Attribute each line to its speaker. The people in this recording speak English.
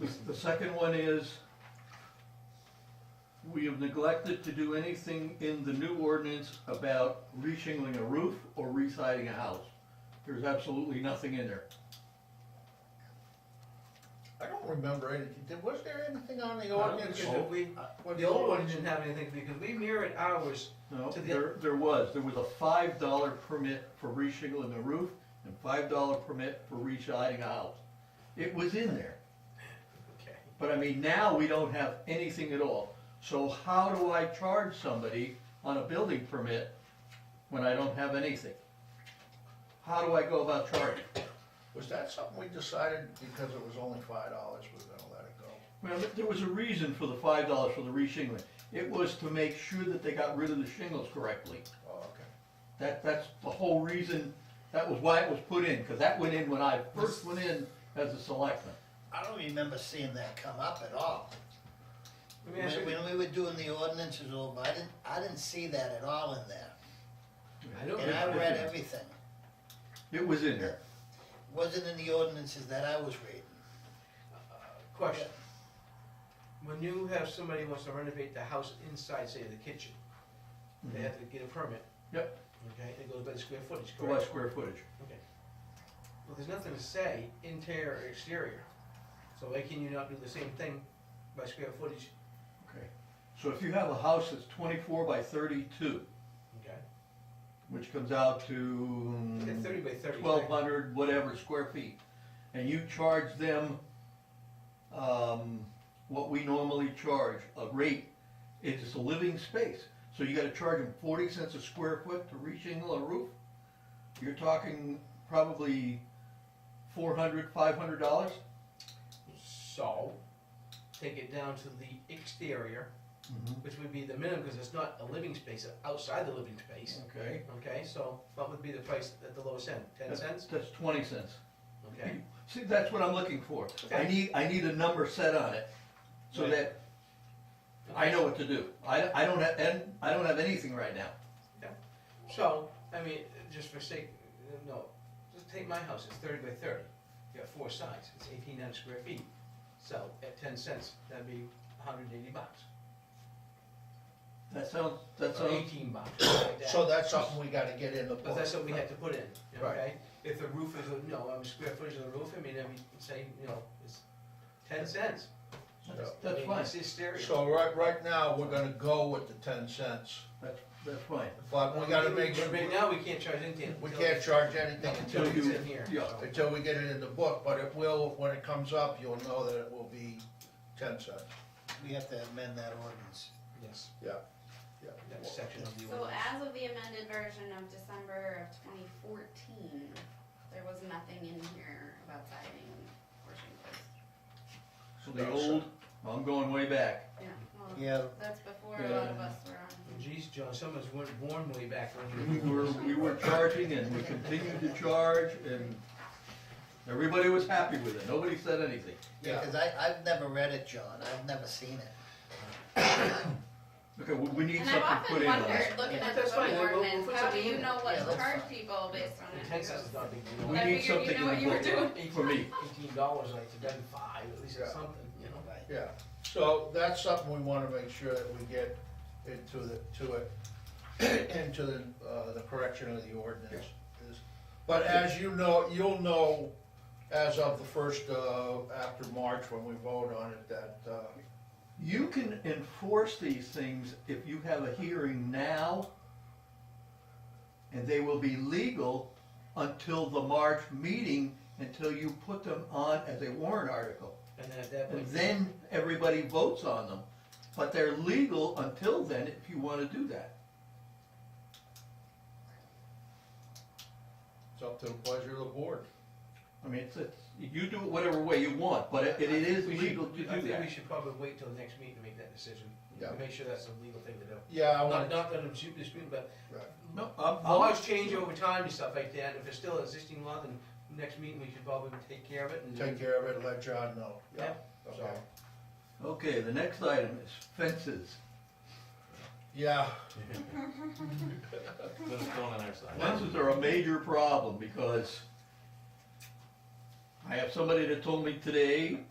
Speaker 1: The- The second one is, we have neglected to do anything in the new ordinance about reshingling a roof or residing a house. There's absolutely nothing in there.
Speaker 2: I don't remember anything, Did- was there anything on the
Speaker 3: I don't
Speaker 2: ordinance
Speaker 3: think so.
Speaker 2: that we?
Speaker 3: Uh,
Speaker 2: what
Speaker 3: The old one didn't have anything, because we mirrored ours,
Speaker 1: No,
Speaker 3: To the-
Speaker 1: there, there was, there was a five dollar permit for reshingling a roof and five dollar permit for residing a house. It was in there.
Speaker 3: okay,
Speaker 1: But I mean, now we don't have anything at all. So how do I charge somebody on a building permit when I don't have anything? How do I go about charging?
Speaker 2: Was that something we decided because it was only five dollars, we we're gonna let it go?
Speaker 1: Well, th- there was a reason for the five dollars for the reshingling. It was to make sure that they got rid of the shingles correctly.
Speaker 2: Oh, okay.
Speaker 1: That, that's the whole reason, that was why it was put in, because that went in when I first went in as a selectman.
Speaker 4: I don't remember seeing that come up at all.
Speaker 3: let me ask
Speaker 4: When,
Speaker 3: you,
Speaker 4: when we were doing the ordinances over, I didn't, I didn't see that at all in there.
Speaker 3: I don't
Speaker 4: And I
Speaker 3: remember.
Speaker 4: read everything.
Speaker 1: It was in there.
Speaker 4: Wasn't in the ordinances that I was reading.
Speaker 3: Question. When you have somebody who wants to renovate the house inside, say the kitchen, they have to get a permit.
Speaker 1: Yep.
Speaker 3: Okay, it goes by the square footage,
Speaker 1: Go by
Speaker 3: correct?
Speaker 1: square footage.
Speaker 3: Well, there's nothing to say interior or exterior, so why can you not do the same thing by square footage,
Speaker 1: Okay. So if you have a house that's twenty-four by thirty-two,
Speaker 3: okay?
Speaker 1: which comes out
Speaker 3: At
Speaker 1: to
Speaker 3: thirty by thirty.
Speaker 1: twelve hundred whatever square feet, and you charge them, um, what we normally charge, a rate, it's a living space, so you gotta charge them forty cents a square foot to reshingle a roof? You're talking probably four hundred, five hundred dollars?
Speaker 3: So, take it down to the exterior, which would be the minimum, because it's not a living space, it's outside the living space,
Speaker 1: Okay,
Speaker 3: okay? So, what would be the price at the lowest end, ten
Speaker 1: That's-
Speaker 3: cents,
Speaker 1: that's twenty cents.
Speaker 3: okay?
Speaker 1: See, that's what I'm looking for. I
Speaker 3: Okay.
Speaker 1: need, I need a number set on it, so that I know what to do. I, I don't have, and I don't have anything right now.
Speaker 3: So, I mean, just for sake, no, just take my house, it's thirty by thirty, you got four sides, it's eighteen hundred square feet. So, at ten cents, that'd be hundred and eighty bucks,
Speaker 1: That sounds, that
Speaker 3: or
Speaker 1: sounds,
Speaker 3: eighteen bucks, something like that.
Speaker 2: So that's something we gotta get in the book.
Speaker 3: But that's what we had to put in,
Speaker 2: Right.
Speaker 3: okay? If the roof is, a- no, I mean, square footage of the roof, I mean, I mean, say, you know, it's ten cents.
Speaker 1: that's,
Speaker 2: So-
Speaker 3: I
Speaker 1: that's
Speaker 3: mean,
Speaker 1: fine,
Speaker 3: It's hysteria.
Speaker 2: So right, right now, we're gonna go with the ten cents,
Speaker 1: that's, that's fine.
Speaker 2: but we gotta make sure,
Speaker 3: But right now, we can't charge anything.
Speaker 2: we
Speaker 3: until-
Speaker 2: can't charge anything
Speaker 3: Until
Speaker 2: until
Speaker 1: Until
Speaker 3: it's
Speaker 1: you-
Speaker 3: in here.
Speaker 1: yeah.
Speaker 3: so.
Speaker 2: until we get it in the book, but it will, when it comes up, you'll know that it will be ten cents.
Speaker 4: We have to amend that ordinance.
Speaker 3: Yes,
Speaker 2: Yeah,
Speaker 3: that section of the
Speaker 5: So
Speaker 3: ordinance.
Speaker 5: as of the amended version of December of twenty fourteen, there was nothing in here about siding or shingles.
Speaker 3: Oh,
Speaker 1: So the old, I'm going way back.
Speaker 5: Yeah, well,
Speaker 4: Yeah,
Speaker 5: that's before a lot of us were on.
Speaker 3: Geez, John, some of us weren't born way back when
Speaker 1: We were, we were charging and we continued to charge and everybody was happy with it. Nobody said anything.
Speaker 4: yeah, cause I, I've never read it, John. I've never seen it.
Speaker 1: Okay, we, we need
Speaker 5: And
Speaker 1: something put
Speaker 5: I've often
Speaker 1: in on
Speaker 5: wondered,
Speaker 1: that.
Speaker 5: looking
Speaker 3: But
Speaker 5: at the
Speaker 3: that's fine,
Speaker 5: book
Speaker 3: we'll- we'll
Speaker 5: ordinance,
Speaker 3: put
Speaker 5: how do
Speaker 3: something
Speaker 5: you
Speaker 3: in
Speaker 5: know what
Speaker 4: Yeah,
Speaker 5: to
Speaker 4: that's
Speaker 5: charge
Speaker 4: fine.
Speaker 5: people based on
Speaker 3: The
Speaker 5: it?
Speaker 3: ten cents is not a big
Speaker 1: We
Speaker 3: deal.
Speaker 5: I
Speaker 1: need
Speaker 5: figured you
Speaker 1: something
Speaker 5: know what
Speaker 1: in
Speaker 5: you were
Speaker 1: the book.
Speaker 5: doing.
Speaker 1: For me.
Speaker 3: Eighteen dollars, like, to done five, at least it's
Speaker 2: Yeah.
Speaker 3: something, you know?
Speaker 4: Right.
Speaker 2: yeah, so that's something we wanna make sure that we get into the, to it, into the, uh, the correction of the ordinance. is- But as you know, you'll know as of the first, uh, after March, when we vote on it, that, uh,
Speaker 1: You can enforce these things if you have a hearing now, and they will be legal until the March meeting, until you put them on as a warrant article.
Speaker 3: And then at that
Speaker 1: And
Speaker 3: point.
Speaker 1: then everybody votes on them, but they're legal until then if you wanna do that.
Speaker 2: it's up to the pleasure of the board.
Speaker 1: I mean, it's, it's, you do it whatever way you want, but it, it is
Speaker 3: We should-
Speaker 1: legal to
Speaker 3: I
Speaker 1: do
Speaker 3: think we
Speaker 1: that.
Speaker 3: should probably wait till the next meeting to make that decision.
Speaker 2: Yeah.
Speaker 3: Make sure that's a legal thing to do.
Speaker 2: Yeah, I
Speaker 3: Not,
Speaker 2: want,
Speaker 3: not that I'm super disputing, but
Speaker 1: No, I'm, I'm,
Speaker 3: laws change over time and stuff like that, if it's still an existing law, then next meeting we should probably take care of it and.
Speaker 2: take care of it, let John know.
Speaker 3: Yeah.
Speaker 2: So,
Speaker 1: okay, the next item is fences.
Speaker 2: yeah,
Speaker 6: Let us go on our side.
Speaker 1: Lenses are a major problem because I have somebody that told me today